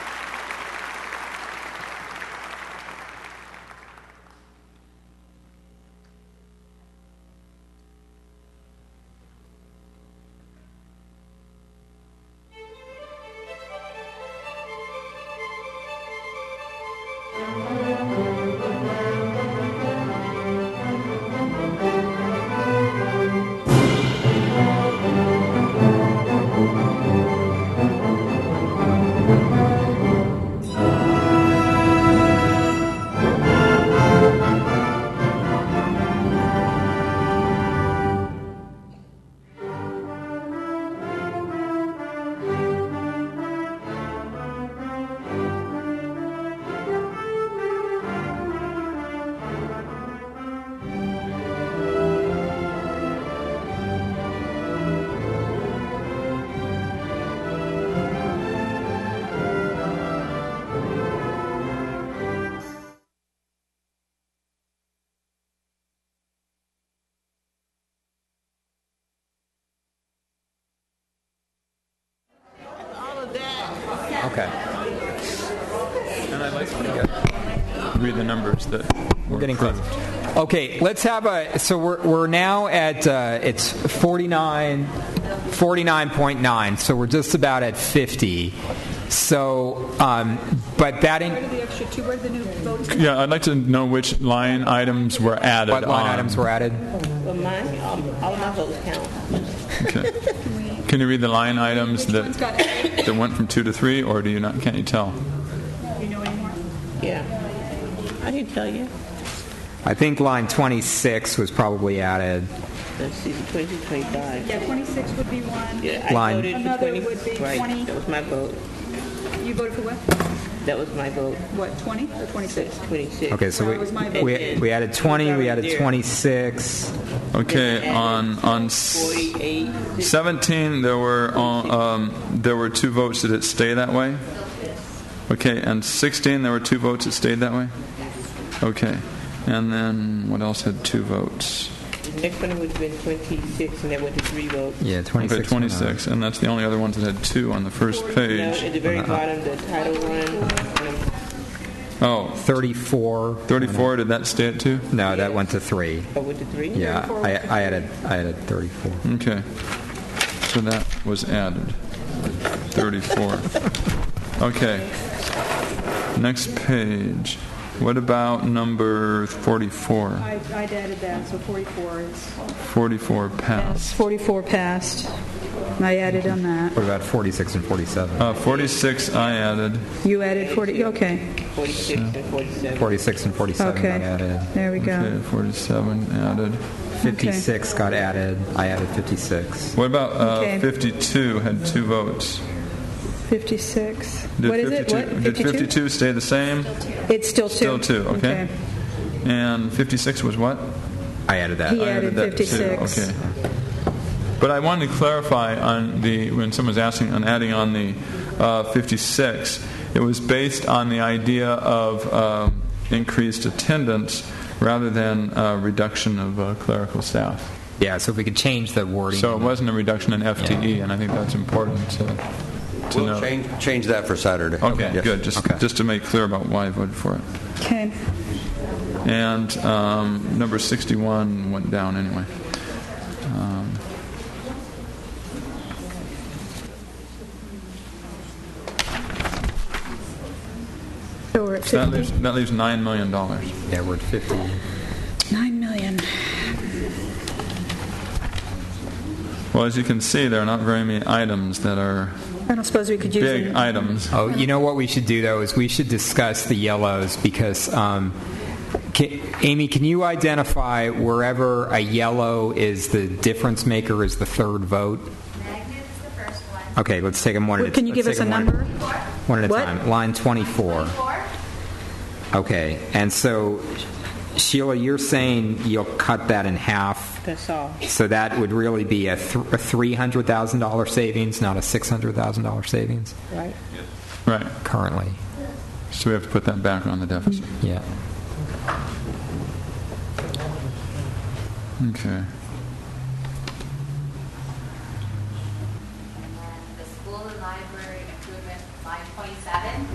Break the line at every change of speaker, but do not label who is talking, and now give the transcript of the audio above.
Okay.
And I like pretty good. Read the numbers that
We're getting close. Okay, let's have a. So we're, we're now at uh, it's 49, 49.9. So we're just about at 50. So, um, but that in,
Where did the extra two, where did the new voting?
Yeah, I'd like to know which line items were added.
what line
on.
items were added?
But mine, um, all of my votes count.
Okay. Can you read the line items
Which one's got
that
added?
that went from two to three, or do you not? Can't you tell?
Do you know anymore?
Yeah. I can tell you.
I think line 26 was probably added.
Let's see, the 20, 25.
Yeah, 26 would be one.
Yeah,
Line.
I voted for
Another
20.
would be
right,
20.
That was my vote.
You voted for what?
That was my vote.
What, 20 or 26?
26.
Okay, so
That was my
we,
vote.
we, we added 20, we added
Yeah.
26.
Okay, on on s-
48.
seventeen there were uh, um, there were two votes. Did it stay that way? Okay, and sixteen there were two votes that stayed that way. Okay, and then what else had two votes?
The next one would have been 26, and that went to three votes.
Yeah, 26.
Okay, twenty-six, and that's the only other ones that had two on the first
Now,
page.
at the very
Uh-huh.
bottom, the title one. um,
Oh,
34.
34, did that stay at two?
No, that went to 3.
Oh, with the three?
Yeah, I, I added I added 34.
Okay. So that was added. 34. Okay. Next page. What about number 44?
I, I added that, so 44 is.
44
Yes,
passed.
44 passed. I added on that.
What about 46 and 47?
Uh, 46 I added.
You added 40, okay,
46 and 47.
46 and 47 got added.
okay. There we
Okay,
go.
47 added.
56 got added. I added 56.
What about uh,
Okay.
52 had two votes?
56.
Did
What is it?
52
What?
Did 52 stay the same?
It's still two.
Still two, okay. And 56 was what?
I added that.
He
I
added
that too.
56.
Okay. But I wanted to clarify on the, when someone's asking, on adding on the uh, 56, it was based on the idea of um, increased attendance rather than uh, reduction of uh, clerical staff.
Yeah, so if we could change the wording.
So it wasn't a reduction in FTE, and I think that's important to, to
We'll
know.
change, change that for Saturday.
Okay,
Yes.
good. Just, just to make clear about why I voted for it.
Okay.
And um, number 61 went down anyway.
So we're at
That
50.
leaves, that leaves $9 million.
Yeah, we're at 50.
9 million.
Well, as you can see, there are not very many items that are
I don't suppose we could use
big
them.
items.
Oh, you know what we should do though is we should discuss the yellows because um, ca Amy, can you identify wherever a yellow is the difference maker is the third vote?
Magnet is the first one.
Okay, let's take them one at a
Can you
let's
give
take
us a
'em one-
number?
One at a
What?
time. Line 24.
Four,
Okay, and so Sheila, you're saying you'll cut that in half.
That's all.
So that would really be a, th- a three hundred thousand dollar savings, not a six hundred thousand dollar savings
Right?
Right.
currently.
So we have to put that back on the deficit.
Yeah.
Okay.